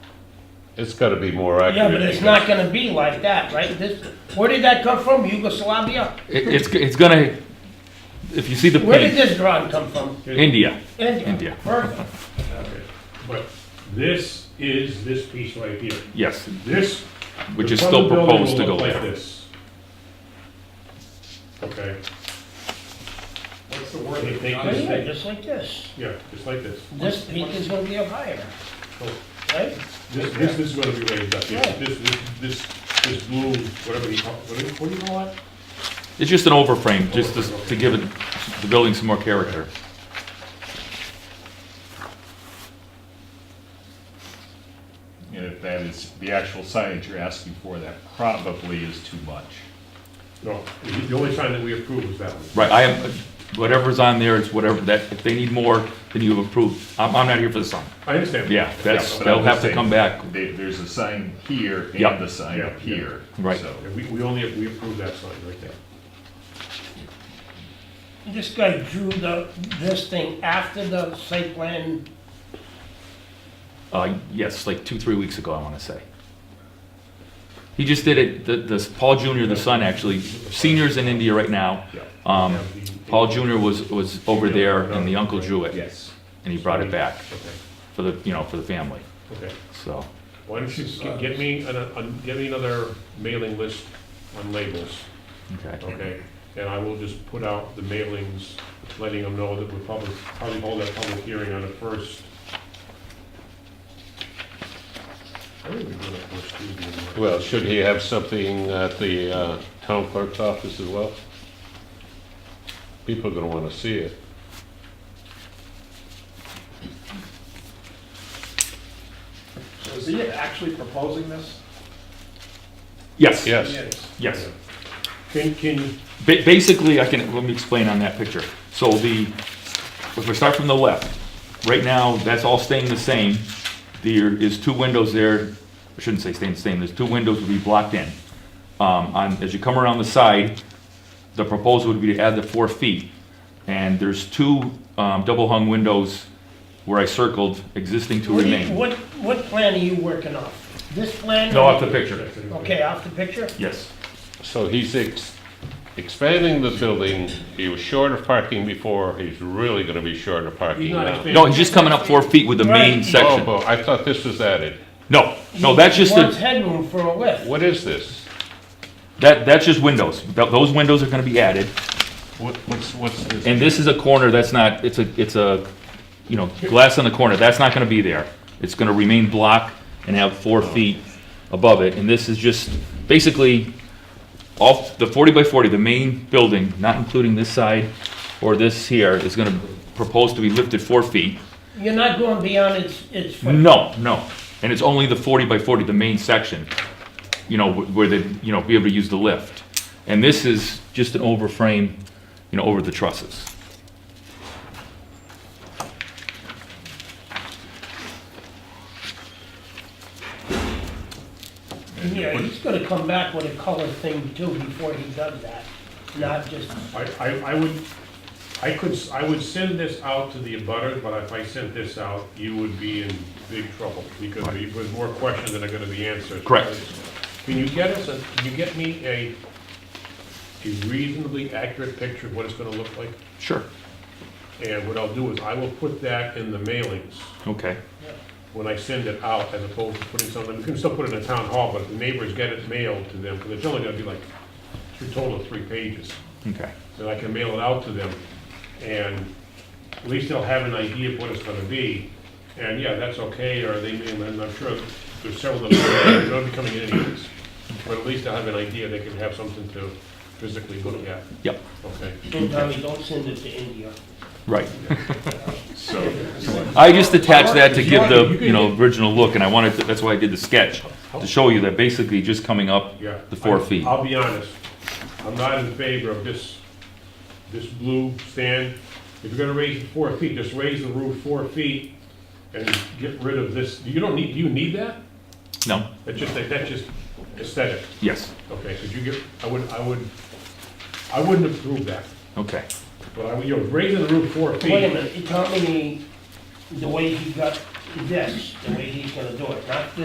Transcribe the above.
It's gotta be more accurate. Yeah, but it's because- not gonna be like that, right? This, where did that come from? Yugoslavia? It, it's, it's gonna, if you see the Where did paint, this drawing come from? India. India. India. Perfect. Okay, But this is this piece right here. Yes, This. which the is front of still the building proposed to will go look like there. this. Okay, What's the word? They- they- Right Not- here, just like this. yeah, just like this. This peak is gonna be up higher, So right? This, this this is gonna be raised up here. Yeah. This, this, this, this blue, whatever you call, what do you, what do you call it? It's just an overframe, just to, to give it, the building some more character. And if that is the actual signage you're asking for, that probably is too much. No, the- the only sign that we approve is that one. Right, I am, whatever's on there is whatever, that, if they need more, then you approve. I'm, I'm not here for the sign. I understand. Yeah, that's, but I'm they'll have just to saying, come back. There, there's a sign here Yep. and a sign Yeah, up yeah. here. Right. so- And We, we only, we approve that sign right there. This guy drew the, this thing after the site plan, Uh, yes, like two, three weeks ago, I wanna say. He just did it, the, this, Paul Junior, the son, actually, senior's in India right now. Yeah. Um, Yeah, the- Paul Junior was, was over there and the uncle drew it. Yes. And he brought it back Okay, for the, you know, for the family, okay. so. Why don't you g- get me, an- an- get me another mailing list on labels, Okay. okay? And I will just put out the mailings, letting them know that we'll probably, probably hold that public hearing on the first. I think we're doing it first Tuesday in March. Well, should he have something at the uh, town clerk's office as well? People are gonna wanna see it. So is he actually proposing this? Yes. Yes, Yes. Can, can, Ba- Basically, I can, let me explain on that picture. So the, if we start from the left, right now, that's all staying the same. There is two windows there, I shouldn't say staying the same, there's two windows will be blocked in. Um, on, as you come around the side, the proposal would be to add the four feet. And there's two, um, double hung windows where I circled existing to what, do you- remain. what, what plan are you working off? This plan? No, off the picture, Okay, off the picture? yes. so he's ex- expanding the building, he was short of parking before, he's really gonna be short of parking he's not now. expanding. No, he's just coming up four feet with the Right. main Oh, section. but I thought this was added. No, no, that's just Wants the, headroom for a lift. What is this? that, that's just windows. Th- Those windows are gonna be added. What- What's, what's this? And this is a corner that's not, it's a, it's a, you know, glass on the corner, that's not gonna be there. It's gonna remain block and have four feet above it, and this is just, basically, all, the forty by forty, the main building, not including this side or this here, is gonna propose to be lifted four feet. You're not going beyond its, its foot. No, no, and it's only the forty by forty, the main section, you know, wh- where they, you know, be able to use the lift. And this is just an overframe, you know, over the trusses. Yeah, he's gonna come back with a color thing too before he does that, not just, I, I, I would, I could, s- I would send this out to the abutters, but if I sent this out, you would be in big trouble, because there- there's more questions that are gonna be answered. Correct. Can you get us, a- can you get me a, a reasonably accurate picture of what it's gonna look like? Sure. And what I'll do is, I will put that in the mailings Okay. when I send it out, as opposed to putting something, we can still put it in the town hall, but if the neighbors get it mailed to them, because it's only gonna be like, a total of three pages. Okay. that I can mail it out to them, and at least they'll have an idea of what it's gonna be. And yeah, that's okay, or they may, and I'm sure there's several of them, that are gonna be coming in anyways. But at least they'll have an idea, they can have something to physically look at, Yep. okay? Tommy, don't send it to India. Right. So, I just attached that to If you give want- if you the can you know get- original look, and I wanted to, that's why I did the sketch to show you that basically just coming up Yeah. the four I- feet. I'll be honest, I'm not in favor of this, this blue stand. If you're gonna raise it four feet, just raise the roof four feet and get rid of this, you don't need, do you need that? No. That's just, that's just aesthetic. Yes. Okay, could you get, I would, I would, I wouldn't approve that, Okay. but I would, you know, raising the roof four Wait a feet. minute, Tommy, the way he got this, the way he's gonna do it, not this